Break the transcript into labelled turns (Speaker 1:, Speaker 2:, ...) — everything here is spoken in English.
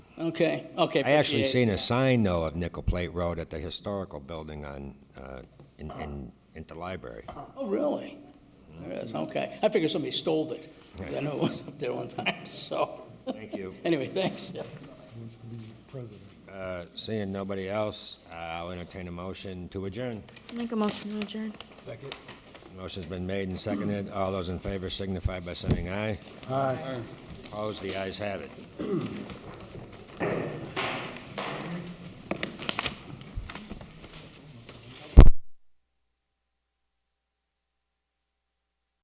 Speaker 1: Okay, okay.
Speaker 2: I
Speaker 1: appreciate
Speaker 2: actually
Speaker 1: it.
Speaker 2: seen a sign, though, of Nickel Plate Road at the historical building on, uh, in, in, in the library.
Speaker 1: Oh, really? There is, okay. I figured somebody stole it. I know it was up there one time, so.
Speaker 2: Thank you.
Speaker 1: Anyway, thanks.
Speaker 3: wants to be president.
Speaker 2: Uh, Seeing nobody else, uh, I'll entertain a motion to adjourn.
Speaker 4: Make a motion to adjourn.
Speaker 3: Second.
Speaker 2: Motion's been made and seconded. All those in favor signify by saying aye.
Speaker 3: Aye.
Speaker 2: Opposed, the ayes have it.